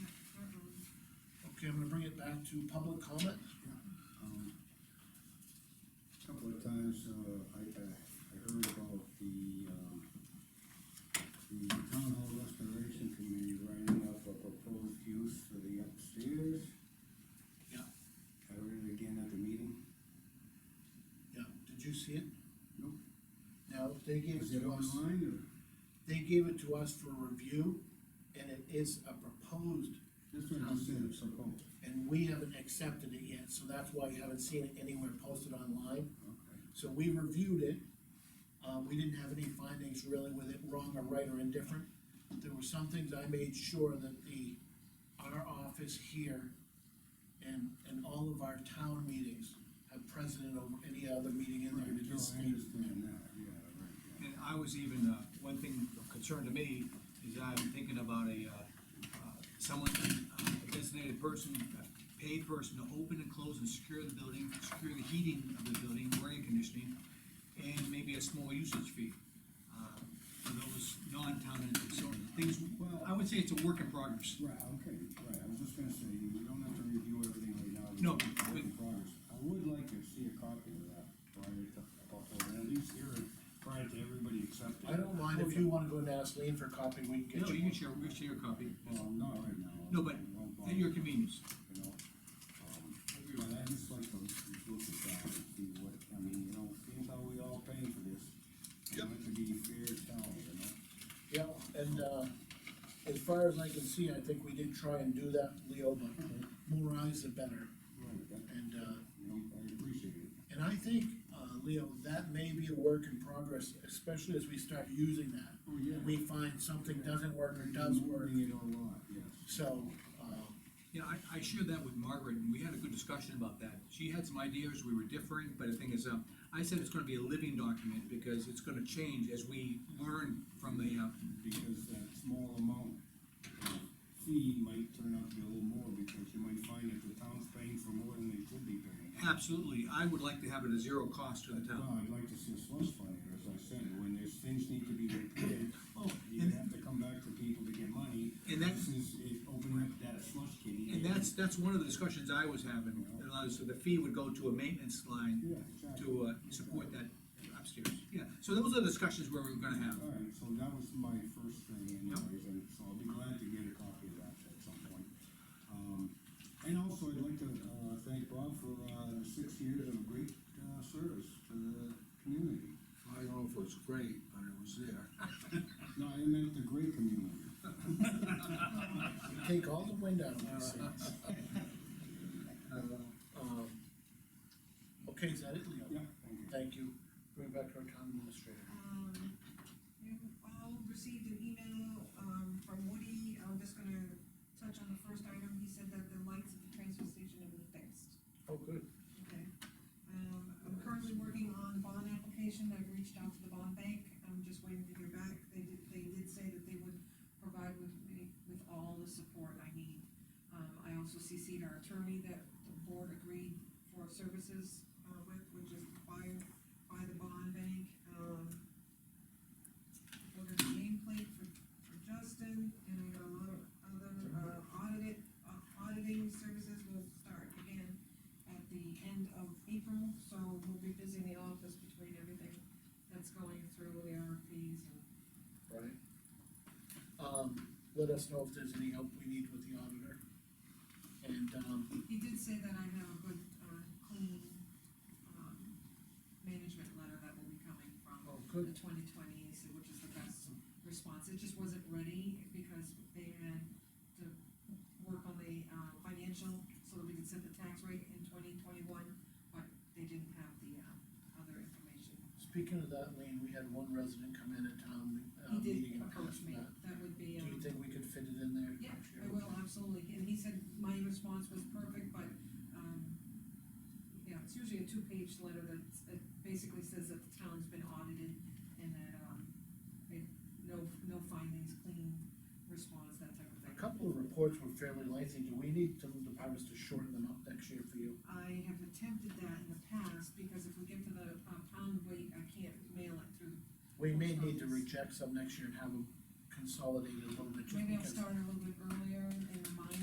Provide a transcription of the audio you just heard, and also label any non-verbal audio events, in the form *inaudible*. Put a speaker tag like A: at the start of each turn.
A: uh-uh.
B: Okay, I'm gonna bring it back to public comment.
C: Um, Couple of times, uh, I, I, I heard about the, um, the town hall restoration committee writing up a proposed use for the upstairs.
B: Yeah.
C: I read it again at the meeting.
B: Yeah, did you see it?
C: Nope.
B: Now, they gave it
C: Is it
B: to us,
C: online or
B: they gave it to us for review, and it is a proposed,
C: That's what I just said, it's proposed.
B: and we haven't accepted it yet, so that's why you haven't seen it anywhere posted online.
C: Okay.
B: So we reviewed it, uh, we didn't have any findings really with it wrong or right or indifferent. There were some things I made sure that the, our office here and, and all of our town meetings have precedent over any other meeting in
C: Right,
B: there.
C: no,
B: because
C: I understand that, yeah, right, yeah.
D: And I was even, uh, one thing of concern to me is I'm thinking about a, uh, uh, someone, uh, a designated person, a paid person to open and close and secure the building, secure the heating of the building, or air conditioning, and maybe a small usage fee, uh, for those non-town entities, so things, I would say it's a work in progress.
C: Right, okay, right, I was just gonna say, we don't have to review everything right now. We
D: No,
C: can work
D: we-
C: in progress. I would like to see a copy of that prior to, at least here, prior to everybody accepting.
B: I don't mind if you wanna go and ask Lean for a copy, we can
D: No,
B: get you
D: you can
B: one.
D: share, we can share a copy,
C: Well, not right now.
D: No, but
C: It won't bother
D: at your
C: me,
D: convenience.
C: You know, um, but I just like to look at that and see what, I mean, you know, seeing how we all paying for this. I want it to be fair to all, you know?
B: Yeah, and, uh, as far as I can see, I think we did try and do that, Leo, but more eyes the better,
C: Right, that,
B: and, uh,
C: you know, I appreciate it.
B: And I think, uh, Leo, that may be a work in progress, especially as we start using that.
C: Oh, yeah.
B: We find something doesn't work or does work,
C: Moving it a lot, yes.
B: so, um,
D: Yeah, I, I shared that with Margaret, and we had a good discussion about that. She had some ideas, we were differing, but the thing is, um, I said it's gonna be a living document, because it's gonna change as we learn from the, uh,
C: because that small amount of fee might turn out to be a little more, because you might find that the town's paying for more than they should be paying.
D: absolutely, I would like to have it a zero cost to the
C: No,
D: town.
C: I'd like to see a slush fund, here, as I said, when there's things need to be repaired,
D: Oh,
C: you
D: and,
C: have to come back to people to get money.
D: And that-
C: This is, it opening up that slush kitty.
D: and that's, that's one of the discussions I was having, and I was- so the fee would go to a maintenance line
C: Yeah, exactly.
D: to, uh, support that upstairs. Yeah, so those are the discussions where we're gonna have.
C: All right, so that was my first thing anyways, and so I'll be glad to get a copy of that at some point. Um, and also I'd like to, uh, thank Bob for, uh, six years of great, uh, service to the community.
E: I don't know if it was great, but it was there.
C: *laughs* No, I meant the great community.
D: *laughs*
B: take all the wind out of my *laughs* sails. Um, Okay, is that it, Leo?
C: Yeah, thank you.
B: Thank you. Bring it back to our town administrator.
A: Um, you all received an email, um, from Woody, I'm just gonna touch on the first item, he said that the lights at the transfer station have been fixed.
B: Oh, good.
A: Okay. Um, I'm currently working on bond application, I've reached out to the bond bank, I'm just waiting to hear back, they did, they did say that they would provide with me, with all the support I need. Um, I also CC'd our attorney that the board agreed for services, uh, with, which is by, by the bond bank, um. Ordered a nameplate for, for Justin, and I got a lot of other, uh, audit, uh, auditing services will start again at the end of April, so we'll be busy in the office between everything that's going through the RFPs and.
B: Right. Um, let us know if there's any help we need with the auditor. And, um,
A: He did say that I have a good, uh, clean, um, management letter that will be coming from
B: oh,
A: the
B: good.
A: twenty twenties, which is the best response. It just wasn't ready because they had to work on the, uh, financial, so that we could set the tax rate in twenty twenty-one, but they didn't have the, uh, other information.
B: Speaking of that, Lean, we had one resident come in at town, uh,
A: He
B: meeting
A: did
B: and
A: approach
B: ask
A: me,
B: that.
A: that would be,
B: Do
A: um.
B: you think we could fit it in there?
A: Yeah, I will, absolutely, and he said my response was perfect, but, um, yeah, it's usually a two-page letter that, that basically says that the town's been audited and that, um, it, no, no findings, clean response, that type of
B: A
A: thing.
B: couple of reports were fairly lengthy, do we need some departments to shorten them up next year for you?
A: I have attempted that in the past, because if we get to the, uh, pound weight, I can't mail it through.
B: We may
A: Post
B: need to
A: office.
B: reject some next year and have them consolidated a little bit, just
A: Maybe I'll
B: because
A: start a little bit earlier in the mine